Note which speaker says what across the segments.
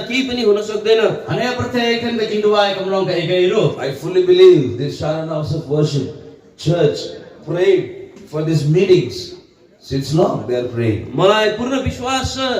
Speaker 1: केही पनि हुन सक्दैन
Speaker 2: Ano yung protect kan ba jinduwa ikamrong ka ikairo?
Speaker 3: I fully believe this Sharan House of Worship Church prayed for these meetings. Since long they are praying.
Speaker 1: मलाई पूर्ण विश्वास छ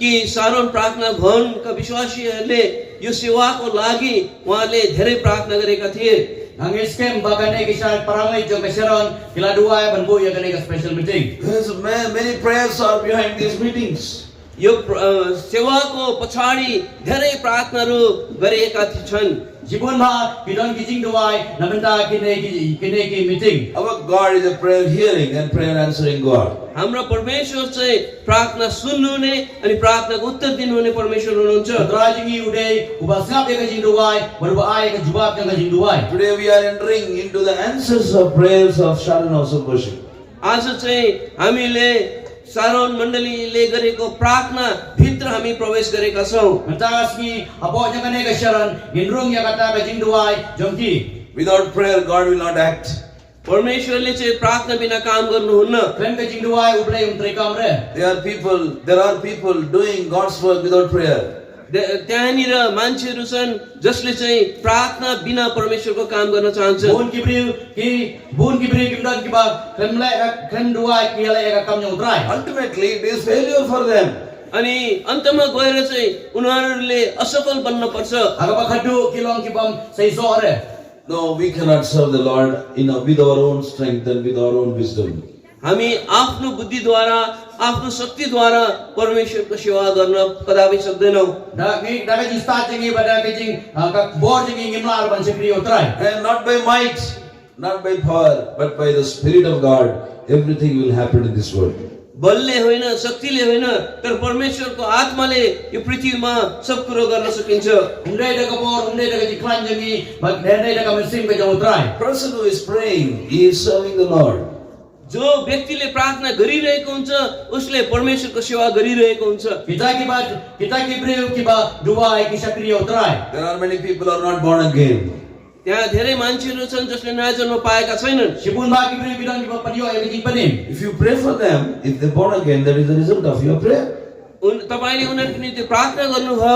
Speaker 1: कि सारोन प्रार्थना भवनका विश्वासीहरूले यो सेवाको लागि उहाँले धेरै प्रार्थना गरेका थिए
Speaker 2: Ang iskem baka na ikisal paramay jo kaseron kila duwa ban bu ya kanay special meeting.
Speaker 3: There is a man, many prayers are behind these meetings.
Speaker 1: यो प्र- अ, सेवाको पछाडि धेरै प्रार्थनाहरू गरिएका थि- छन्
Speaker 2: Jibon ba kidon kijing duwa namenta kinay ki- kinay ki meeting.
Speaker 3: Our God is a prayer hearing and prayer answering God.
Speaker 1: हाम्रो परमेश्वर चाहिँ प्रार्थना सुन्नुहुने अनि प्रार्थनाको उत्तर दिनुहुने परमेश्वर हुनुहुन्छ
Speaker 2: Kadrajingi uday ubasngap ya kajing duwa berbaai ka jubab ka kajing duwa.
Speaker 3: Today we are entering into the answers of prayers of Sharon House of Worship.
Speaker 1: आज चाहिँ हामीले सारोन मण्डलीले गरेको प्रार्थना भित्र हामी प्रवेश गरेका छौँ
Speaker 2: Mentas ni apo nya kanay kaseron ginrung ya kata kajing duwa jongki.
Speaker 3: Without prayer, God will not act.
Speaker 1: परमेश्वरले चाहिँ प्रार्थना बिना काम गर्नुहुन्न
Speaker 2: Kren kajing duwa ublay umtrikam re.
Speaker 3: There are people, there are people doing God's work without prayer.
Speaker 1: त्य- त्यहाँनिर मान्छेहरू छन् जसले चाहिँ प्रार्थना बिना परमेश्वरको काम गर्न चाहन्छन्
Speaker 2: Bun kibriu ki bun kibriu kimdan kiba kremle krem dua kiale ka kam nyong trai.
Speaker 3: Ultimately, it is failure for them.
Speaker 1: अनि अन्तमा गएर चाहिँ उनीहरूले असफल बन्न पर्छ
Speaker 2: Aga ba khadu kilong kibam sei sore.
Speaker 3: No, we cannot serve the Lord in a, with our own strength and with our own wisdom.
Speaker 1: हामी आफ्नो बुद्धिद्वारा आफ्नो शक्तिद्वारा परमेश्वरको सेवा गर्न कदापि सक्दैनौँ
Speaker 2: Da ngi da ka jista chingi ba da ka jing ka bor chingi ngimlar ban sei priu trai.
Speaker 3: And Eh, not by might, not by power, but by the Spirit of God, everything will happen in this world.
Speaker 1: बलले होइन शक्तिले होइन तर परमेश्वरको आत्माले यो पृथ्वीमा सब कुरो गर्न सकिन्छ
Speaker 2: Undai da ka bor undai da ka jiklan chingi ba dendai da ka mesim ka jong trai.
Speaker 3: The person who is praying, he is serving the Lord.
Speaker 1: जो व्यक्तिले प्रार्थना गरिरहेको हुन्छ उसले परमेश्वरको सेवा गरिरहेको हुन्छ
Speaker 2: Kita kiba kita kibriu kiba dua ki oh, sakriu trai.
Speaker 3: There are many people who are not born again.
Speaker 1: त्यहाँ धेरै मान्छेहरू छन् जसले नयाँ जन्म पाएका छैनन्
Speaker 2: Sibun ba kibriu bidang kiba padio ya ka jing panim.
Speaker 3: If you pray for them, if they're born again, that is the result of your prayer.
Speaker 1: उन तपाईँले उनीहरूको निम्ति प्रार्थना गर्नुभयो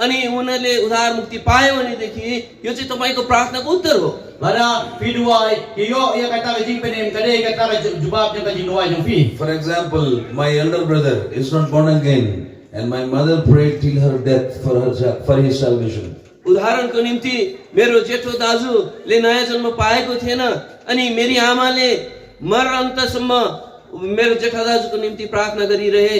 Speaker 1: अनि उनीहरूले उद्धार मुक्ति पायो भनेदेखि यो चाहिँ तपाईँको प्रार्थनाको उत्तर हो
Speaker 2: Lada piduai kiyo ya kata ka jing panim kadai kata ka jubab jong ka jing dua jong pi.
Speaker 3: For example, my elder brother is not born again, and my mother prayed till her death for her sa- for his salvation.
Speaker 1: उदाहरणको निम्ति मेरो जेठो दाजुले नयाँ जन्म पाएको थिएन अनि मेरी आमाले मरणन्तसम्म मेरो जेठा दाजुको निम्ति प्रार्थना गरिरहे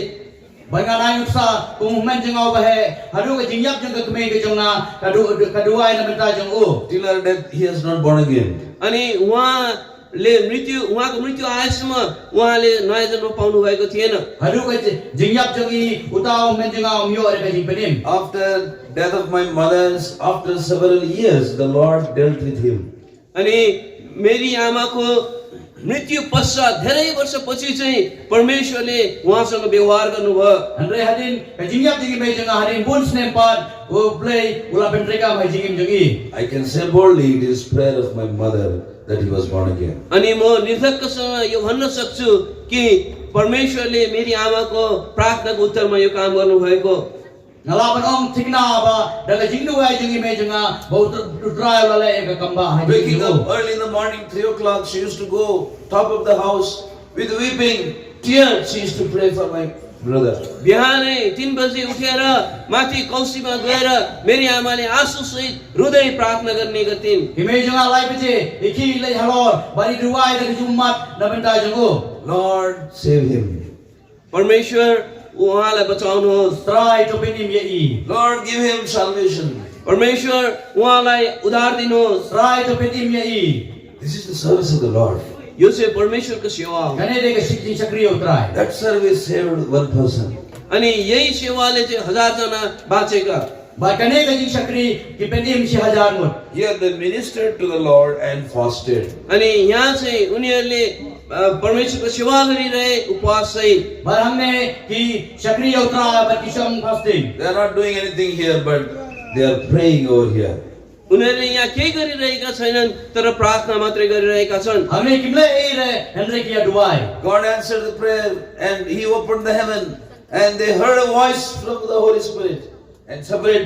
Speaker 2: Banga na yung sa kung humen jeng au bahe hadu ka jing yap jeng ka kemei ka jong na kadu kaduai na benta jeng u.
Speaker 3: Till her death, he has not born again.
Speaker 1: अनि उहाँले मृत्यु उहाँको मृत्यु आएसम्म उहाँले नयाँ जन्म पाउनु भएको थिएन
Speaker 2: Hadu ka jing yap jeng i utau humen jeng au mio ada ka jing penim.
Speaker 3: After death of my mother's, after several years, the Lord dealt with him.
Speaker 1: अनि मेरी आमाको मृत्यु पश्चात धेरै वर्षपछि चाहिँ परमेश्वरले उहाँसँग व्यवहार गर्नुभयो
Speaker 2: Andre hadin eh, ka jing yap jeng i mei jeng hadin bun senempat u play ula pentrika ka jing im jeng i.
Speaker 3: I can say boldly, it is prayer of my mother that he was born again.
Speaker 1: अनि म निर्धक्कसँग यो भन्न सक्छु कि परमेश्वरले मेरी आमाको प्रार्थनाको उत्तरमा यो काम गर्नुभएको
Speaker 2: Ngalaban ong tingna ba da ka jing duai jeng i mei jeng a bau utrai ula le ka kamba hai jing
Speaker 3: Waking
Speaker 2: jeng
Speaker 3: up
Speaker 2: u.
Speaker 3: early in the morning, three o'clock, she used to go top of the house with weeping, tears. She used to pray for my brother.
Speaker 1: बिहानै तिन बजे उठेर माथि कौशीमा गएर मेरी आमाले आँसुसहित हृदय प्रार्थना गर्ने गर्थिन्
Speaker 2: Imei jeng a lai pece iki le halor bari duai da ka jumat na benta jeng u.
Speaker 3: Lord, save him.
Speaker 1: परमेश्वर उहाँलाई बचाउनुहोस्
Speaker 2: Try to penim ye i.
Speaker 3: Lord, give him salvation.
Speaker 1: परमेश्वर उहाँलाई उधार दिनुहोस्
Speaker 2: Try to pedim ye i.
Speaker 3: This is the service of the Lord.
Speaker 1: यो चाहिँ परमेश्वरको सेवा हो
Speaker 2: Kane de ka sikjing sakriyo try.
Speaker 3: That service saved one person.
Speaker 1: अनि यही सेवाले चाहिँ हजारजना बाँचेका
Speaker 2: Ba kane ka jing sakri ki pedim si hajar mut.
Speaker 3: Here they ministered to the Lord and fasted.
Speaker 1: अनि यहाँ चाहिँ उनीहरूले अ, परमेश्वरको सेवा गरिरहे उपवास सहित
Speaker 2: Ba hamne ki sakriyo try ba ki sham fasting.
Speaker 3: They are not doing anything here, but they are praying over here.
Speaker 1: उनीहरूले यहाँ केही गरिरहेका छैनन् तर प्रार्थना मात्रै गरिरहेका छन्
Speaker 2: Hamne kimle i re henre ki aduai.
Speaker 3: God answered the prayer and He opened the heaven and they heard a voice from the Holy Spirit. and separate